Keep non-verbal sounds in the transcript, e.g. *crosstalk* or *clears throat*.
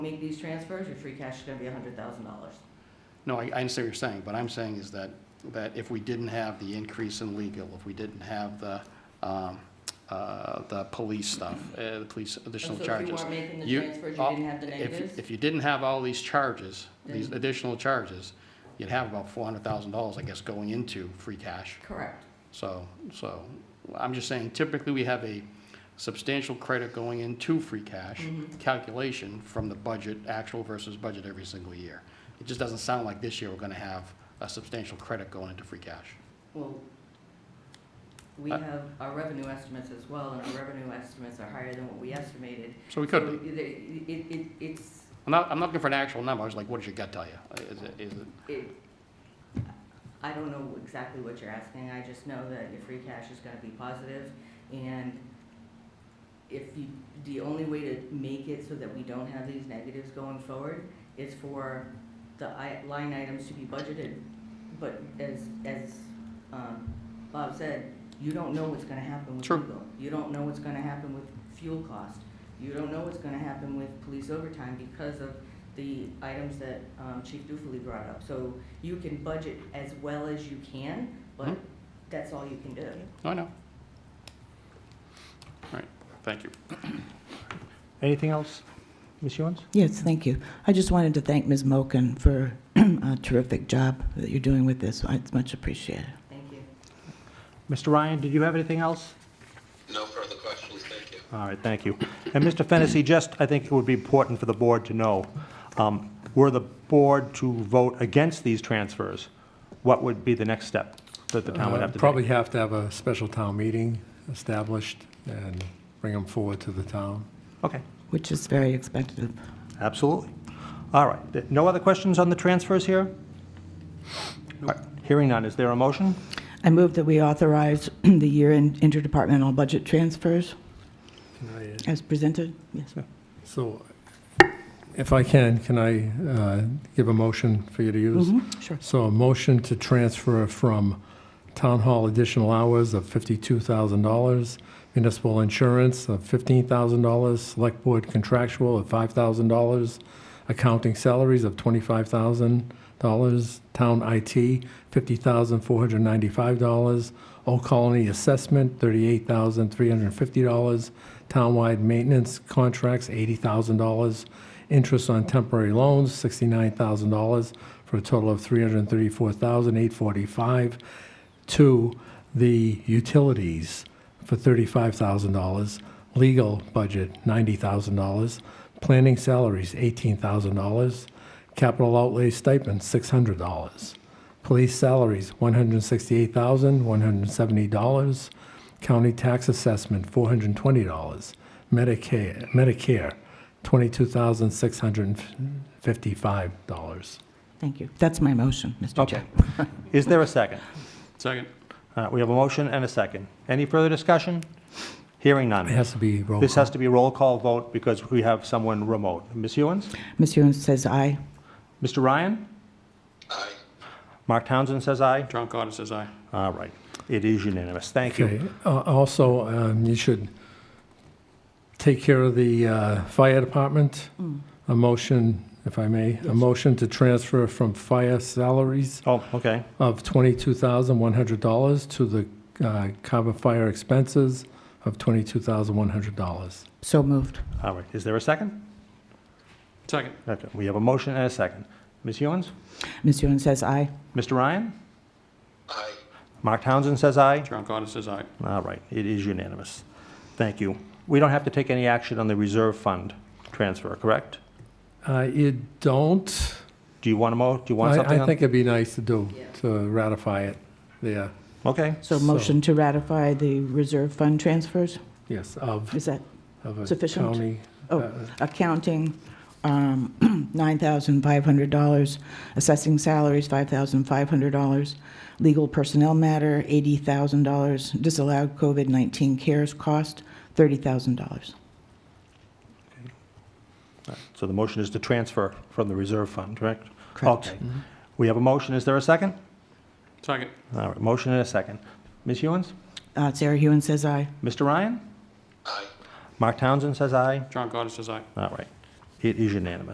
make these transfers, your free cash is gonna be hundred thousand dollars. No, I, I understand what you're saying, but I'm saying is that, that if we didn't have the increase in legal, if we didn't have the, um, uh, the police stuff, uh, the police additional So if charges. you weren't making the you- transfers, you all- didn't have the if- negatives? If you didn't have all these charges, these Then- additional charges, you'd have about four hundred thousand dollars, I guess, going into free cash. Correct. So, so, I'm just saying typically we have a substantial credit going into free Mm-hmm. cash calculation from the budget, actual versus budget every single year. It just doesn't sound like this year we're gonna have a substantial credit going into free cash. Well, we Uh, have our revenue estimates as well, and our revenue estimates are higher than what we estimated. So we could be. So it- It, it, it's, I'm not, I'm not looking for an actual number, I was like, what does your gut tell you? Is it, is it, it, I don't know exactly what you're asking, I just know that your free cash is gonna be positive, and if you, the only way to make it so that we don't have these negatives going forward is for the i- line items to be budgeted. But as, as, um, Bob said, you don't know what's gonna happen with True. legal. You don't know what's gonna happen with fuel cost. You don't know what's gonna happen with police overtime because of the items that, um, Chief Dufely brought up. So you can budget as well as you can, but Mhm. that's all you can do. I know. All right, thank you. Anything else, Ms. Ewens? Yes, thank you. I just wanted to thank Ms. Moken for *clears throat* a terrific job that you're doing with this. It's much appreciated. Thank you. Mr. Ryan, did you have anything else? No further questions, thank you. All right, thank you. And Mr. Fennessy, just, I think it would be important for the board to know, um, were the board to vote against these transfers, what would be the next step that the town would have to Uh, take? Probably have to have a special town meeting established and bring them forward to the town. Okay, Which is very expensive. absolutely. All right, th- no other questions on the transfers here? All right, Hearing none, is there a motion? I move that we authorize *clears throat* the year-end interdepartmental budget transfers Can I, uh, as presented. Yes, sir. So if I can, can I uh, give a motion for you to use? Sure. So a motion to transfer from town hall additional hours of $52,000, municipal insurance of $15,000, select board contractual of $5,000, accounting salaries of $25,000, town IT $50,495, Old Colony assessment $38,350, townwide maintenance contracts $80,000, interest on temporary loans, $69,000, for a total of $334,845 to the utilities for $35,000, legal budget $90,000, planning salaries $18,000, capital outlay stipend $600, police salaries $168,170, county tax assessment $420, Medicare, Medicare $22,655. Thank you. That's my motion, Mr. Okay. Chair. Is there a second? Second. All right, we have a motion and a second. Any further discussion? Hearing none. It has to be roll This call. has to be a roll call vote because we have someone remote. Ms. Ewens? Ms. Ewens says aye. Mr. Ryan? Aye. Mark Townsend says aye. John Carter says aye. All right. It is unanimous. Thank you. Okay, uh, also, um, you should take care of the uh, fire department. A motion, if I may, a motion to transfer from fire salaries Oh, okay. of twenty-two thousand one hundred dollars to the uh, cover fire expenses of twenty-two thousand one hundred dollars. So moved. All right. Is there a second? Second. Okay. We have a motion and a second. Ms. Ewens? Ms. Ewens says aye. Mr. Ryan? Aye. Mark Townsend says aye. John Carter says aye. All right. It is unanimous. Thank you. We don't have to take any action on the reserve fund transfer, correct? Uh, You don't, Do you want to mo, do you want something I I on- think it'd be nice to do, Yeah. to ratify it, yeah, Okay. So So- motion to ratify the reserve fund transfers? yes, of, Is that of a sufficient? county. Oh. uh, accounting, um, *clears throat* $9,500, assessing salaries, $5,500, legal personnel matter, $80,000, disallowed COVID-19 cares cost, $30,000. So the motion is to transfer from the reserve fund, correct? Correct. Okay. We have a motion. Is there a second? Second. All right. Motion and a second. Ms. Ewens? Uh, Sarah Hewen says aye. Mr. Ryan? Aye. Mark Townsend says aye. John Carter says aye. All right. It is unanimous.